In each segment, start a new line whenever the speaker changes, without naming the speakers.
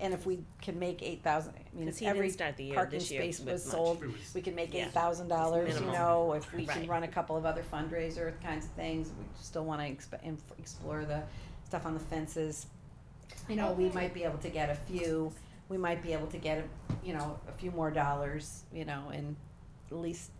and if we can make eight thousand, I mean,
Because
if
he didn't
every
start the year
parking
this year
space was
with
sold,
much.
It was-
we can make
Yeah.
eight thousand dollars, you
Minimal.
know, if we can
Right.
run a couple of other fundraiser kinds of things, we still wanna exp- inf- explore the stuff on the fences. You know, we might be able to get a few, we might be able to get, a- you know, a few more dollars, you know, and at least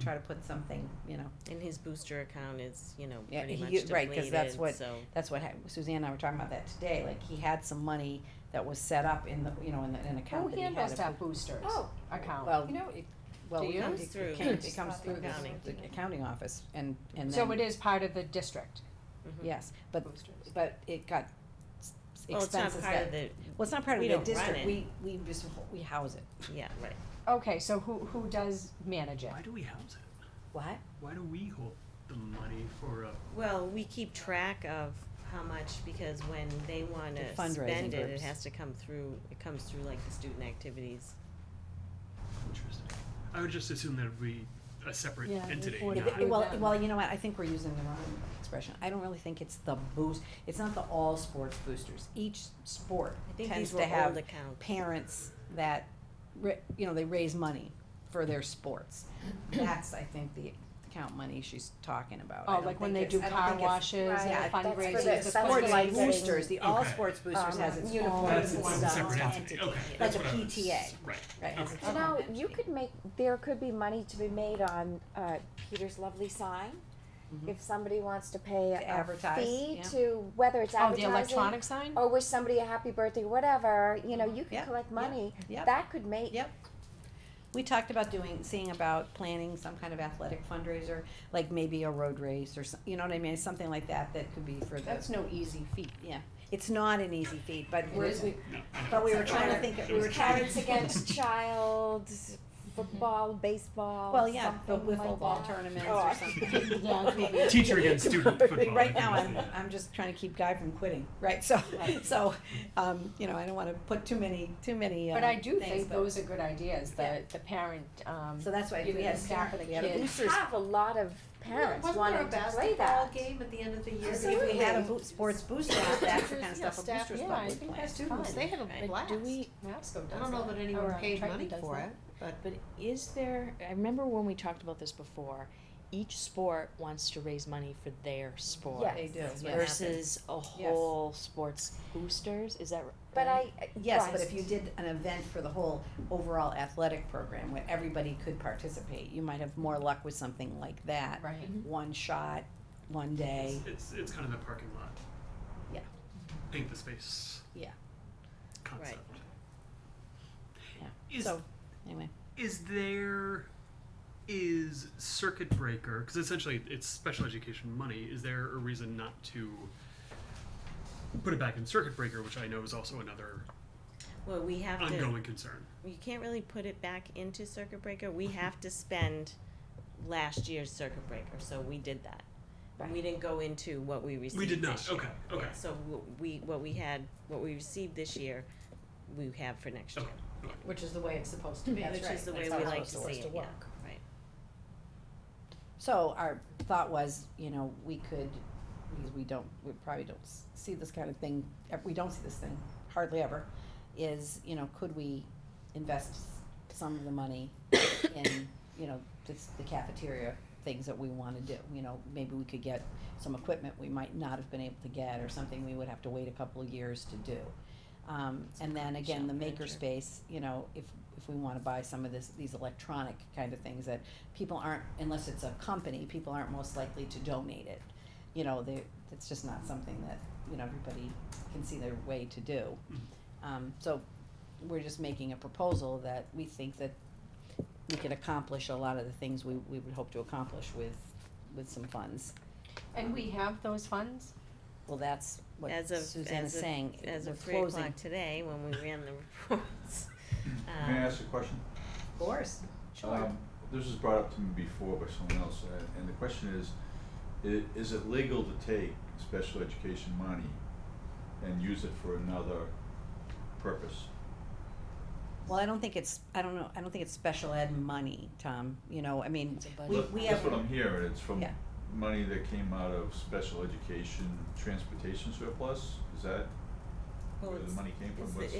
try to put something, you know,
And his booster account is, you know,
Yeah,
pretty
he-
much
right, 'cause that's
depleted,
what-
so.
that's what hap- Suzanne and I were talking about that today, like he had some money that was set up in the, you know, in the, in an
Oh,
Who
account that he had.
handles
if
that boosters
Oh.
Well,
account? You know, it-
Well,
Do
it
you?
comes
Comes
through,
through
it comes through the,
accounting.
the accounting office and, and
so it
then,
is part of the district
yes, but,
boosters.
but it got s- s-
mm-hmm. Well, it's not
expenses
part
that,
of the,
well, it's not part of
we
the
don't run
district,
it.
we, we just, we house it.
yeah, right.
Okay, so who, who does manage it?
Why do we house it?
What?
Why do we hold the money for uh, a?
Well, we keep track of how much, because when they wanna
The fundraising
spend it, it
groups.
has to come through, it comes through like the student activities.
Interesting. I would just assume that we a separate
Yeah,
entity.
report it
not-
through.
Well,
them.
well, you know what, I think we're using the wrong expression, I don't really think it's the boost, it's not the all sports boosters, each sport
I think
tends
these
to
were old
have
accounts.
parents that, ra- you know, they raise money for their sports. That's, I think, the account money she's talking about, I
Oh,
don't
like when
think
they
it's-
do
I don't
car
think it's-
washes,
Right.
Yeah,
and
that's
for
fundraisers.
the-
the
that's for
Sports
like
fundraisers.
boosters, the all
Okay.
sports boosters
Um,
has its
uniforms
own
That's
and
one
stuff.
separate entity.
entity,
Okay.
like
that's
a
what I was-
PTA.
Right.
Right.
Okay.
It's-
You know, you could make, there could be money to be made on, uh, Peter's Lovely Sign. If somebody wants to pay
Mm-hmm. To
a
advertise,
fee
yeah.
to, whether it's
Oh, the
advertising
electronic sign?
or wish somebody a happy birthday, whatever, you know, you
Yeah,
could collect
yeah,
money.
yeah.
That could make,
Yep. We talked about doing, seeing about planning some kind of athletic fundraiser, like maybe a road race or some, you know what I mean, something like that, that could be for
That's
the,
no easy feat.
yeah. It's not an easy feat, but we're, we,
No, I know.
but we were trying to think, we were trying to
parents against child, football, baseball,
Mm-hmm. well, yeah, but
something
with
like
football
that.
tournaments
Oh,
or
I-
something.
Yeah, maybe.
Teacher against student football, I
Right
think
now,
is
I'm,
the-
I'm just trying to keep Guy from quitting, right, so, so, um, you know, I don't wanna put too many, too many, uh,
But I do
things,
think
but-
those are good ideas,
Yeah.
the, the parent, um,
So that's why if
Either
we
the
had
staff or
parent-
the
we had
kids.
a boosters
Have a lot of parents wanting to play that.
game at the end of the year?
If we had a boo- sports booster, that's the kind of
Yeah,
stuff a
staff-
booster's
yeah,
club
I
would
think
plan.
that's
students,
fun.
they have
Right.
a blast.
Do we-
NAPSCO does
I don't know that
that.
anyone
Or uh,
paid
Triton
money
does
for
that.
it, but, but is there, I remember when we talked about this before, each sport wants to raise money for their sport.
Yes.
They do,
That's what
yes.
happens.
Versus a whole sports boosters, is that r- right?
But I,
Yes, but if you did an event for the whole overall athletic program where everybody could participate, you might have more luck with something like that.
Right. Mm-hmm.
One shot, one day,
It's, it's kind of the parking lot.
Yeah.
Paint the space.
Yeah.
Concept. Is
so, anyway.
is there is circuit breaker because essentially it's special education money is there a reason not to put it back in circuit breaker which i know is also another
Well, we have to.
ongoing concern
you can't really put it back into circuit breaker. We have to spend last year's circuit breaker, so we did that. We didn't go into what we received.
we did not
this year.
okay okay
Yeah, so w- we what we had, what we received this year, we have for next year,
okay
Which is the way it's supposed to be.
which is the way we like to see it. yeah, right.
So our thought was, you know, we could, because we don't, we probably don't s- see this kind of thing, ev- we don't see this thing hardly ever, is, you know, could we invest s- some of the money in, you know, this, the cafeteria things that we wanna do, you know, maybe we could get some equipment we might not have been able to get, or something we would have to wait a couple of years to do. Um, and then again, the makerspace, you know, if, if we wanna buy some of this, these electronic kind of things that people aren't, unless it's a company, people aren't most likely to donate it. You know, they, it's just not something that, you know, everybody can see their way to do. Um, so we're just making a proposal that we think that we could accomplish a lot of the things we, we would hope to accomplish with, with some funds.
And we have those funds?
Well, that's what
As of-
Suzanne
as
is
of-
saying,
As
we're
of three
closing.
o'clock today, when we ran the reports.
May
um,
I ask a question?
Of course, sure.
Um, This was brought up to me before by someone else, a- and the question is, i- is it legal to take special education money and use it for another purpose?
Well, I don't think it's, I don't know, I don't think it's special ed money, Tom, you know, I mean,
It's a
we,
budget.
That-
we have.
That's what I'm hearing, it's from
Yeah.
money that came out of special education transportation surplus, is that
well,
where the
it's-
money came from?
it's the-
What's-